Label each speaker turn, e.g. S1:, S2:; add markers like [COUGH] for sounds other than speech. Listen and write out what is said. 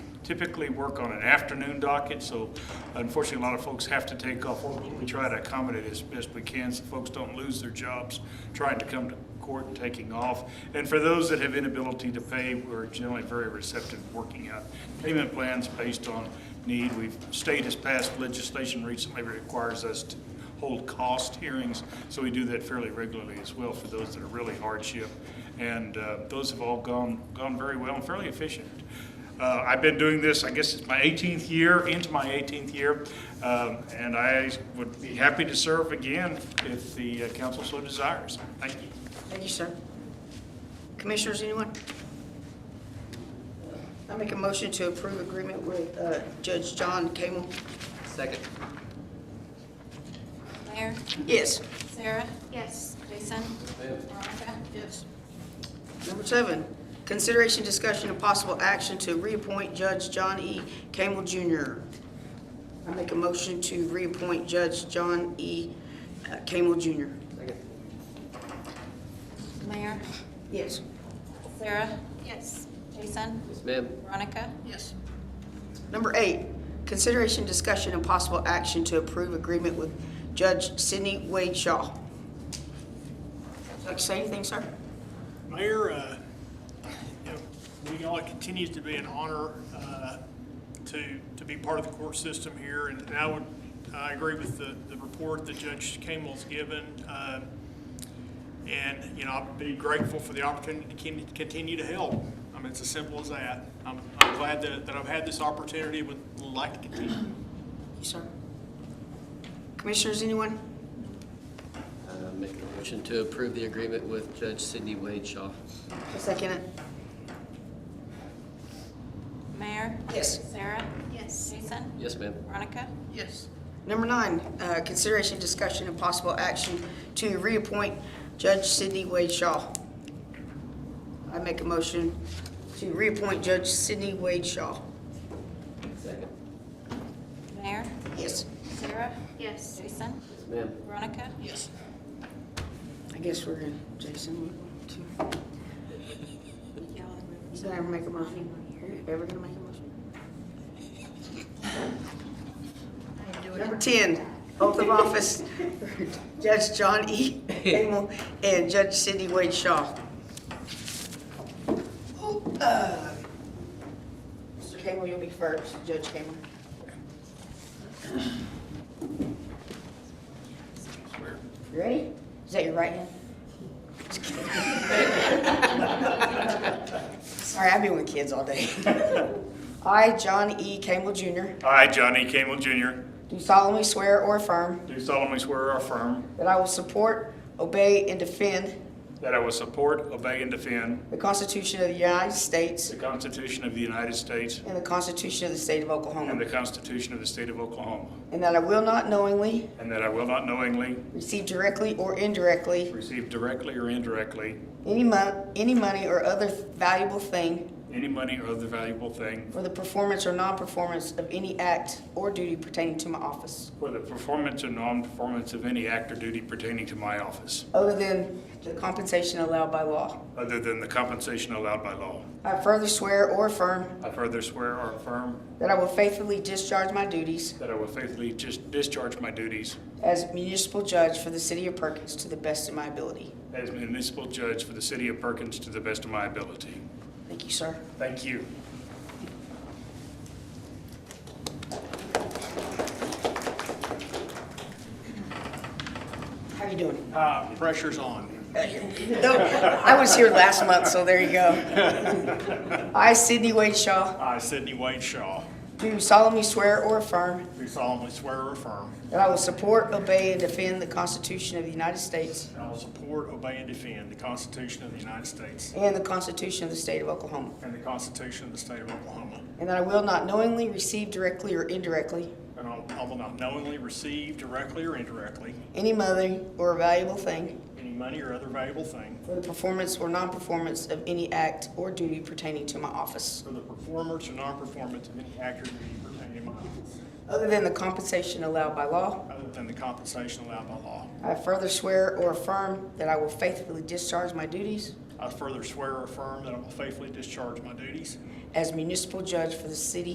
S1: typically work on an afternoon docket, so unfortunately, a lot of folks have to take off work. We try to accommodate as best we can so folks don't lose their jobs trying to come to court and taking off. And for those that have inability to pay, we're generally very receptive to working out payment plans based on need. We've, state has passed legislation recently that requires us to hold cost hearings, so we do that fairly regularly as well for those that are really hardship. And uh, those have all gone, gone very well and fairly efficient. Uh, I've been doing this, I guess it's my 18th year, into my 18th year, um, and I would be happy to serve again if the uh, council so desires. Thank you.
S2: Thank you, sir. Commissioners, anyone? I make a motion to approve agreement with uh, Judge John Camel.
S3: Second.
S4: Mayor,
S2: Yes.
S4: Sarah? Yes. Jason? Veronica?
S2: Yes. Number seven, consideration, discussion, and possible action to reappoint Judge John E. Camel Jr. I make a motion to reappoint Judge John E. uh, Camel Jr.
S3: Second.
S4: Mayor,
S2: Yes.
S4: Sarah? Yes. Jason?
S3: Yes, ma'am.
S4: Veronica?
S2: Yes. Number eight, consideration, discussion, and possible action to approve agreement with Judge Sidney Wade Shaw. Would you Like to say anything, sir?
S5: Mayor, uh, you know, we all, it continues to be an honor uh, to, to be part of the court system here, and I would, I agree with the, the report that Judge Campbell's given. uh, And, you know, I'd be grateful for the opportunity to con- continue to help. I mean, it's as simple as that. I'm, I'm glad that, that I've had this opportunity, would like to continue.
S2: Yes, sir. Commissioners, anyone?
S3: Uh, Make a motion to approve the agreement with Judge Sidney Wade Shaw.
S2: Second it.
S4: Mayor?
S2: Yes.
S4: Sarah? Yes. Jason?
S3: Yes, ma'am.
S4: Veronica?
S2: Yes. Number nine, uh, consideration, discussion, and possible action to reappoint Judge Sidney Wade Shaw. I make a motion to reappoint Judge Sidney Wade Shaw.
S3: Second.
S4: Mayor,
S2: Yes.
S4: Sarah? Yes. Jason?
S3: Yes, ma'am.
S4: Veronica?
S2: Yes. I guess we're in, Jason, one, two. Did I ever make a motion? Are you ever gonna make a motion? Number ten, oath of [LAUGHS] office, Judge John E. Engel and Judge Sidney Wade Shaw. Oh, uh, Mr. Campbell, you'll be first, Judge Campbell. You Ready? Is that your right hand? Sorry, I've been with kids all day. [LAUGHS] I, John E. Campbell Jr.,
S1: I, Johnny Campbell Jr.,
S2: do solemnly swear or affirm
S1: do solemnly swear or affirm
S2: that I will support, obey, and defend
S1: that I will support, obey, and defend
S2: the Constitution of the United States
S1: the Constitution of the United States
S2: and the Constitution of the State
S1: and
S2: of
S1: the
S2: Oklahoma,
S1: Constitution of the State of Oklahoma,
S2: and that I will not knowingly
S1: and that I will not knowingly
S2: receive directly or indirectly
S1: receive directly or indirectly
S2: any mon- any money or other valuable thing
S1: any money or other valuable thing
S2: for the performance or non-performance of any act or duty pertaining to my office,
S1: for the performance or non-performance of any act or duty pertaining to my office,
S2: other than the compensation allowed by law.
S1: other than the compensation allowed by law.
S2: I further swear or affirm
S1: I further swear or affirm
S2: that I will faithfully discharge my duties
S1: that I will faithfully just discharge my duties
S2: as municipal judge for the city of Perkins to the best of my ability.
S1: as municipal judge for the city of Perkins to the best of my ability.
S2: Thank you, sir.
S1: Thank you.
S2: How are you doing?
S5: Uh, Pressure's on.
S2: No, I was here last month, so there you go. I, Sidney Wade Shaw,
S5: I, Uh, Sidney Wade Shaw,
S2: do solemnly swear or affirm
S5: do solemnly swear or affirm
S2: that I will support, obey, and defend the Constitution of the United States
S5: that I will support, obey, and defend the Constitution of the United States
S2: and the Constitution of the State of Oklahoma,
S5: And the Constitution of the State of Oklahoma.
S2: and that I will not knowingly receive directly or indirectly
S5: And I I will not knowingly receive directly or indirectly
S2: any money or valuable thing
S5: any money or other valuable thing
S2: for the performance or non-performance of any act or duty pertaining to my office,
S5: for the performance or non-performance of any act or duty pertaining to my office,
S2: other than the compensation allowed by law.
S5: other than the compensation allowed by law.
S2: I further swear or affirm that I will faithfully discharge my duties
S5: I further swear or affirm that I will faithfully discharge my duties
S2: as municipal judge for the city